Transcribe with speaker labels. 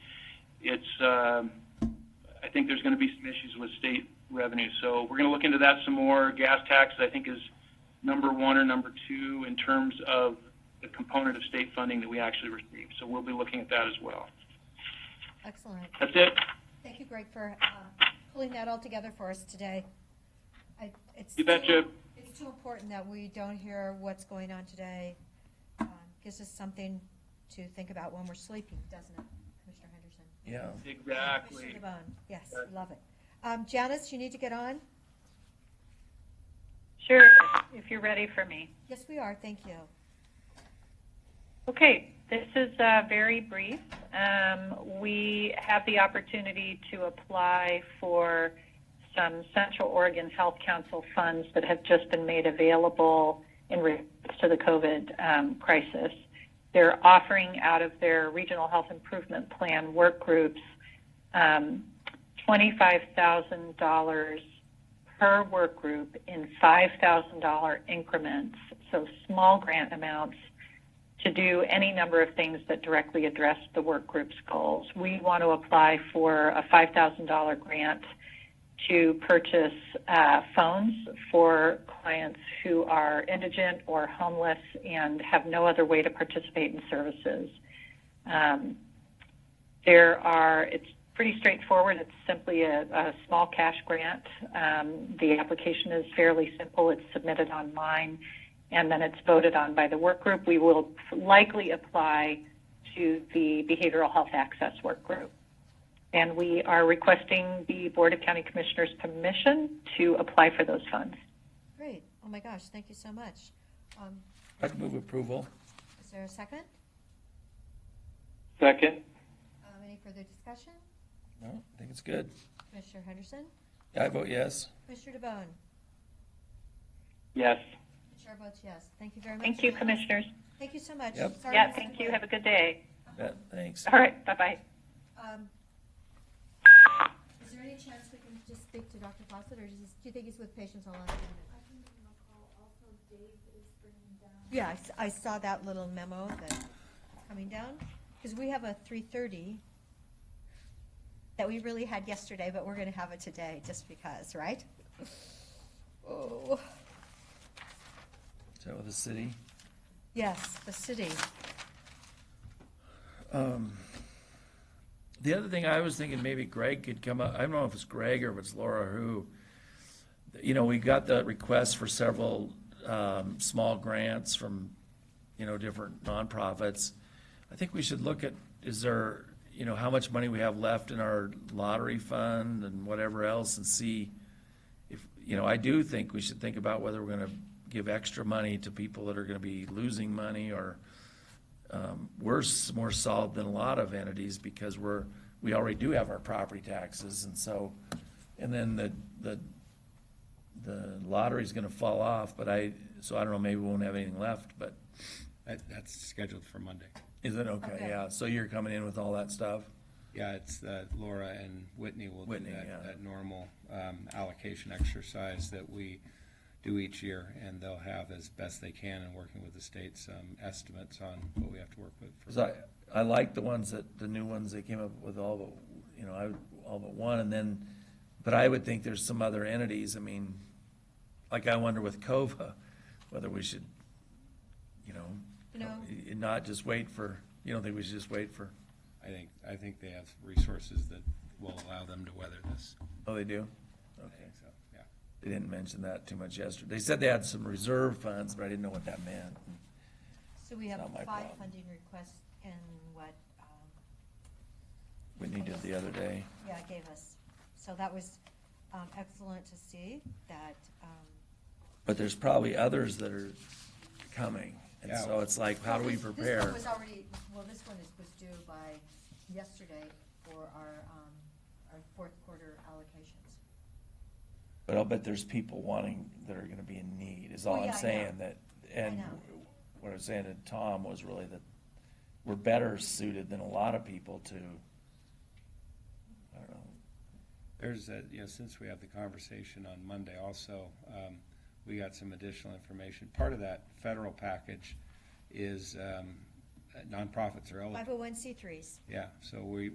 Speaker 1: it's, um, I think there's going to be some issues with state revenue. So we're going to look into that some more. Gas tax, I think, is number one or number two in terms of the component of state funding that we actually receive. So we'll be looking at that as well.
Speaker 2: Excellent.
Speaker 1: That's it.
Speaker 2: Thank you, Greg, for um, pulling that all together for us today. I- it's
Speaker 1: You betcha.
Speaker 2: too- It's too important that we don't hear what's going on today. Um, Gives us something to think about when we're sleeping, doesn't it, Commissioner Henderson?
Speaker 3: Yeah.
Speaker 1: Exactly.
Speaker 2: Commissioner DeBonne, yes, love it. Um, Janice, you need to get on?
Speaker 4: Sure, if you're ready for me.
Speaker 2: Yes, we are, thank you.
Speaker 4: Okay, this is uh, very brief. Um, we have the opportunity to apply for some Central Oregon Health Council funds that have just been made available in response to the COVID um, crisis. They're offering out of their Regional Health Improvement Plan work groups um, $25,000 per work group in $5,000 increments, so small grant amounts to do any number of things that directly address the work group's goals. We want to apply for a $5,000 grant to purchase uh, phones for clients who are indigent or homeless and have no other way to participate in services. Um, there are, it's pretty straightforward. It's simply a, a small cash grant. Um, the application is fairly simple. It's submitted online and then it's voted on by the work group. We will likely apply to the Behavioral Health Access Work Group. And we are requesting the Board of County Commissioners permission to apply for those funds.
Speaker 2: Great, oh my gosh, thank you so much. Um,
Speaker 3: I'd move approval.
Speaker 2: Is there a second?
Speaker 1: Second.
Speaker 2: Um, Any further discussion?
Speaker 3: No, I think it's good.
Speaker 2: Commissioner Henderson?
Speaker 3: Yeah, I vote yes.
Speaker 2: Commissioner DeBonne?
Speaker 1: Yes.
Speaker 2: The chair votes yes, thank you very much.
Speaker 4: Thank you,
Speaker 2: Janice.
Speaker 4: Commissioners.
Speaker 2: Thank you so much.
Speaker 3: Yep.
Speaker 2: Sorry we
Speaker 4: Yeah,
Speaker 2: missed
Speaker 4: thank
Speaker 2: the
Speaker 4: you.
Speaker 2: vote.
Speaker 4: Have a good day.
Speaker 3: Bet, thanks.
Speaker 4: All right, bye-bye.
Speaker 2: Um, Is there any chance we can just speak to Dr. Fawcett, or does- do you think he's with patients all last minute? Yeah, I s- I saw that little memo that's coming down, because we have a 3:30 that we really had yesterday, but we're going to have it today, just because, right? Oh,
Speaker 3: So with the city.
Speaker 2: yes, the city.
Speaker 3: Um, The other thing I was thinking, maybe Greg could come up, I don't know if it's Greg or if it's Laura who, you know, we got the request for several um, small grants from, you know, different nonprofits. I think we should look at, is there, you know, how much money we have left in our lottery fund and whatever else and see if, you know, I do think we should think about whether we're gonna give extra money to people that are gonna be losing money or, um, we're s- more solid than a lot of entities because we're, we already do have our property taxes and so, and then the, the, the lottery's gonna fall off, but I, so I don't know, maybe we won't have anything left, but
Speaker 5: That, that's scheduled for Monday.
Speaker 3: is it okay?
Speaker 2: Okay.
Speaker 3: Yeah, so you're coming in with all that stuff?
Speaker 5: Yeah, it's uh, Laura and Whitney will do
Speaker 3: Whitney,
Speaker 5: that,
Speaker 3: yeah.
Speaker 5: that normal um, allocation exercise that we do each year, and they'll have as best they can in working with the state some estimates on what we have to work with.
Speaker 3: Cause
Speaker 5: for-
Speaker 3: I, I like the ones that, the new ones they came up with all but, you know, I, all but one and then, but I would think there's some other entities, I mean, like I wonder with COVA, whether we should, you know,
Speaker 2: No.
Speaker 3: y- not just wait for, you don't think we should just wait for,
Speaker 5: I think, I think they have resources that will allow them to weather this.
Speaker 3: oh, they do?
Speaker 5: I
Speaker 3: Okay,
Speaker 5: think so, yeah.
Speaker 3: they didn't mention that too much yesterday. They said they had some reserve funds, but I didn't know what that meant.
Speaker 2: So we have
Speaker 3: Not
Speaker 2: five
Speaker 3: my problem.
Speaker 2: funding requests in what, um,
Speaker 3: Whitney did the other day.
Speaker 2: yeah, gave us. So that was um, excellent to see that, um,
Speaker 3: But there's probably others that are coming. And
Speaker 5: Yeah.
Speaker 3: so it's like, how do we
Speaker 2: This-
Speaker 3: prepare?
Speaker 2: This one was already, well, this one is, was due by yesterday for our, um, our fourth quarter allocations.
Speaker 3: But I'll bet there's people wanting, that are gonna be in need, is
Speaker 2: Oh,
Speaker 3: all
Speaker 2: yeah, I
Speaker 3: I'm
Speaker 2: know.
Speaker 3: saying, that, and
Speaker 2: I know.
Speaker 3: what I was saying to Tom was really that we're better suited than a lot of people to, I don't know,
Speaker 5: There's a, you know, since we have the conversation on Monday also, um, we got some additional information. Part of that federal package is, um, nonprofits are eligible.
Speaker 2: Five oh one C threes.
Speaker 5: Yeah, so we,